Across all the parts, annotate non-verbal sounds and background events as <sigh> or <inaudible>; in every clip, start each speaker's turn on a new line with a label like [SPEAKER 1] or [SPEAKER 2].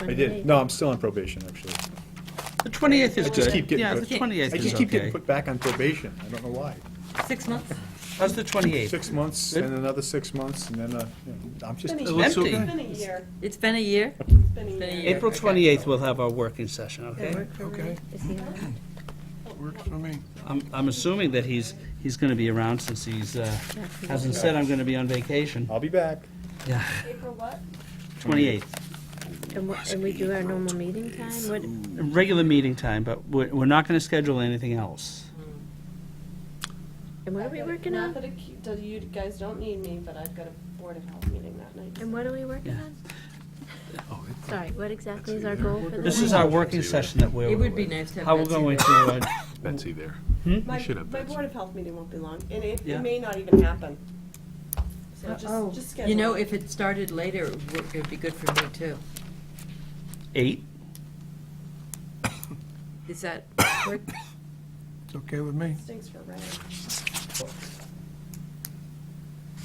[SPEAKER 1] I did, no, I'm still on probation, actually.
[SPEAKER 2] The 28th is
[SPEAKER 1] I just keep
[SPEAKER 2] good.
[SPEAKER 1] getting
[SPEAKER 2] Yeah, the
[SPEAKER 1] put-
[SPEAKER 2] 28th
[SPEAKER 1] I
[SPEAKER 2] is
[SPEAKER 1] just keep
[SPEAKER 2] okay.
[SPEAKER 1] getting put back on probation, I don't know why.
[SPEAKER 3] Six months?
[SPEAKER 2] How's the 28th?
[SPEAKER 1] Six months,
[SPEAKER 2] Good.
[SPEAKER 1] and another six months, and then, uh, you know, I'm just,
[SPEAKER 4] It's
[SPEAKER 2] It
[SPEAKER 4] been a-
[SPEAKER 2] looks
[SPEAKER 4] it's
[SPEAKER 2] okay.
[SPEAKER 4] been a year,
[SPEAKER 3] It's been a year?
[SPEAKER 4] it's been a
[SPEAKER 3] Been a
[SPEAKER 4] year.
[SPEAKER 3] year.
[SPEAKER 2] April
[SPEAKER 3] Okay.
[SPEAKER 2] 28th, we'll have our working session, okay?
[SPEAKER 5] Okay, works for me.
[SPEAKER 2] I'm, I'm assuming that he's, he's going to be around since he's, uh, hasn't said I'm going to be on vacation.
[SPEAKER 1] I'll be back.
[SPEAKER 2] Yeah,
[SPEAKER 4] April what?
[SPEAKER 2] 28th.
[SPEAKER 6] And we- and we do our normal meeting time? What,
[SPEAKER 2] Regular meeting time, but we're, we're not going to schedule anything else.
[SPEAKER 6] and what are we working
[SPEAKER 4] Not
[SPEAKER 6] on?
[SPEAKER 4] that it keep- that you guys don't need me, but I've got a Board of Health meeting that night.
[SPEAKER 6] And what are we working
[SPEAKER 2] Yeah.
[SPEAKER 6] on?
[SPEAKER 5] Oh,
[SPEAKER 6] Sorry, what exactly is our goal for the
[SPEAKER 2] This is our working session that we're.
[SPEAKER 3] It would be nice to have
[SPEAKER 2] How we're
[SPEAKER 3] Betsy
[SPEAKER 2] going to,
[SPEAKER 3] there.
[SPEAKER 2] uh,
[SPEAKER 5] Betsy there.
[SPEAKER 4] My,
[SPEAKER 5] should have
[SPEAKER 4] my
[SPEAKER 5] been.
[SPEAKER 4] Board of Health meeting won't be long, and it,
[SPEAKER 2] Yeah.
[SPEAKER 4] it may not even happen. So just,
[SPEAKER 3] Oh.
[SPEAKER 4] just schedule.
[SPEAKER 3] You know,
[SPEAKER 4] it.
[SPEAKER 3] if it started later, it would it would be good for me too.
[SPEAKER 2] eight?
[SPEAKER 3] Is that work?
[SPEAKER 5] It's okay with me.
[SPEAKER 4] Stinks for Ray.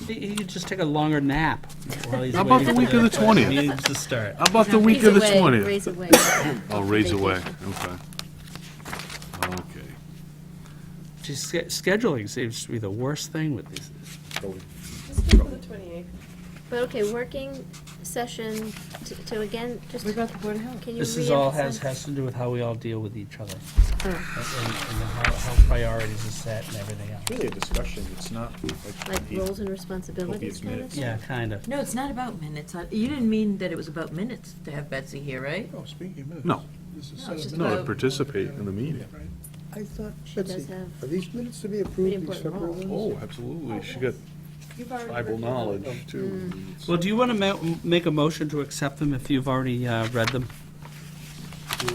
[SPEAKER 2] He he could just take a longer nap while he's
[SPEAKER 5] How about
[SPEAKER 2] waiting
[SPEAKER 5] the
[SPEAKER 2] for
[SPEAKER 5] week of the 20th?
[SPEAKER 2] meetings to start.
[SPEAKER 5] How about the week of the
[SPEAKER 6] Raise away,
[SPEAKER 5] 20th?
[SPEAKER 2] <coughs>
[SPEAKER 6] Raise away.
[SPEAKER 5] I'll raise away, okay. Okay.
[SPEAKER 2] Just sch- scheduling seems to be the worst thing with these.
[SPEAKER 4] Just go for the twenty-eighth.
[SPEAKER 6] But okay, working session to- to again, just,
[SPEAKER 3] What about the Board of Health?
[SPEAKER 6] can you
[SPEAKER 2] This is all has,
[SPEAKER 6] reemphasize-
[SPEAKER 2] has to do with how we all deal with each other.
[SPEAKER 6] Oh.
[SPEAKER 2] And, and and then how, how priorities are set and everything else.
[SPEAKER 1] Really a discussion, it's not like.
[SPEAKER 6] Like roles and responsibilities
[SPEAKER 1] Hope it's
[SPEAKER 6] kind of
[SPEAKER 1] minutes.
[SPEAKER 6] thing?
[SPEAKER 2] Yeah, kind of.
[SPEAKER 3] No, it's not about minutes. I- You didn't mean that it was about minutes to have Betsy here, right?
[SPEAKER 7] Oh, speaking of minutes.
[SPEAKER 5] No.
[SPEAKER 7] This is
[SPEAKER 3] No, it's
[SPEAKER 7] set
[SPEAKER 3] just
[SPEAKER 7] up.
[SPEAKER 5] No, to
[SPEAKER 3] Well-
[SPEAKER 5] participate in the meeting.
[SPEAKER 7] I thought,
[SPEAKER 6] She does
[SPEAKER 7] Betsy,
[SPEAKER 6] have
[SPEAKER 7] are these minutes to be
[SPEAKER 6] pretty
[SPEAKER 7] approved, these
[SPEAKER 6] important
[SPEAKER 7] separate
[SPEAKER 6] role.
[SPEAKER 7] ones?
[SPEAKER 5] Oh, absolutely, she got
[SPEAKER 4] You've already.
[SPEAKER 5] tribal
[SPEAKER 4] reviewed them.
[SPEAKER 5] knowledge, too.
[SPEAKER 6] Hmm.
[SPEAKER 2] Well, do you want to ma- make a motion to accept them if you've already uh, read them?
[SPEAKER 6] Are we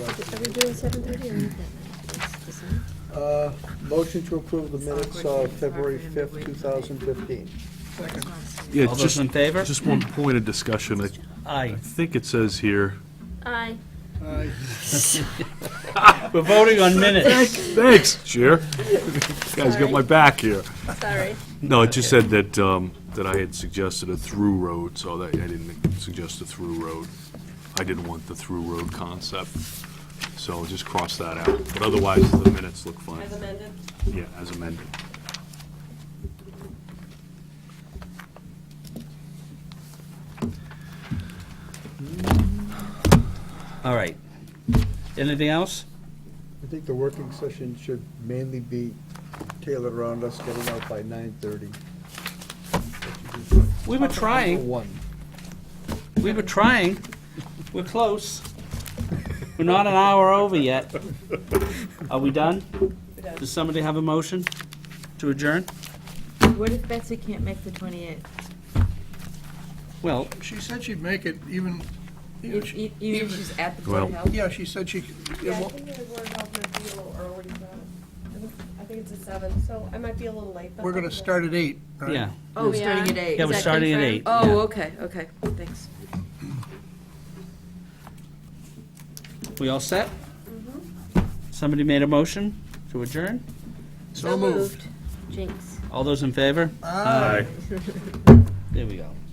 [SPEAKER 6] doing seven thirty or not that night? It's the same.
[SPEAKER 7] Uh, Motion to approve the minutes
[SPEAKER 3] awkward.
[SPEAKER 7] of
[SPEAKER 3] It's
[SPEAKER 7] February
[SPEAKER 3] awkward to
[SPEAKER 7] 5th,
[SPEAKER 3] wait.
[SPEAKER 7] 2015.
[SPEAKER 5] Yeah,
[SPEAKER 2] All
[SPEAKER 5] just-
[SPEAKER 2] those in favor?
[SPEAKER 5] Just one point of discussion, I
[SPEAKER 2] Aye.
[SPEAKER 5] I think it says here,
[SPEAKER 6] Aye.
[SPEAKER 2] We're voting on minutes.
[SPEAKER 5] thanks, Chair. Guys got my back here.
[SPEAKER 6] Sorry.
[SPEAKER 5] No, it just said that, um, that I had suggested a through road, so that, I didn't suggest a through road. I didn't want the through road concept, so just cross that out. But otherwise, the minutes look fine,
[SPEAKER 4] As amended,
[SPEAKER 5] yeah, as amended.
[SPEAKER 2] All right. Anything else?
[SPEAKER 7] I think the working session should mainly be tailored around us getting out by 9:30.
[SPEAKER 2] We were trying,
[SPEAKER 7] One.
[SPEAKER 2] we were trying. We're close. We're not an hour over yet. Are we done? Does somebody have a motion to adjourn?
[SPEAKER 3] What if Betsy can't make the 28th?
[SPEAKER 2] Well,
[SPEAKER 7] She said she'd make it even,
[SPEAKER 3] If- e- Even if she's at the Board of
[SPEAKER 5] Well-
[SPEAKER 3] Health?
[SPEAKER 7] yeah, she said she,
[SPEAKER 4] yeah, I think the Board of Health might be a little early for that. I think- I think it's a seven, so I might be a little late. but
[SPEAKER 7] we're going
[SPEAKER 4] I'll
[SPEAKER 7] to
[SPEAKER 4] be there.
[SPEAKER 7] start at 8, right?
[SPEAKER 2] yeah.
[SPEAKER 3] Oh,
[SPEAKER 6] We
[SPEAKER 3] starting
[SPEAKER 6] are.
[SPEAKER 3] at eight.
[SPEAKER 2] Yeah, we're
[SPEAKER 6] Is that
[SPEAKER 2] starting at
[SPEAKER 6] confirmed?
[SPEAKER 2] eight. yeah.
[SPEAKER 3] Oh, okay, okay, thanks.
[SPEAKER 2] We all set? Somebody made a motion to adjourn?
[SPEAKER 7] So moved.
[SPEAKER 6] Jinx.
[SPEAKER 2] All those in favor?
[SPEAKER 7] Aye.
[SPEAKER 2] There we go.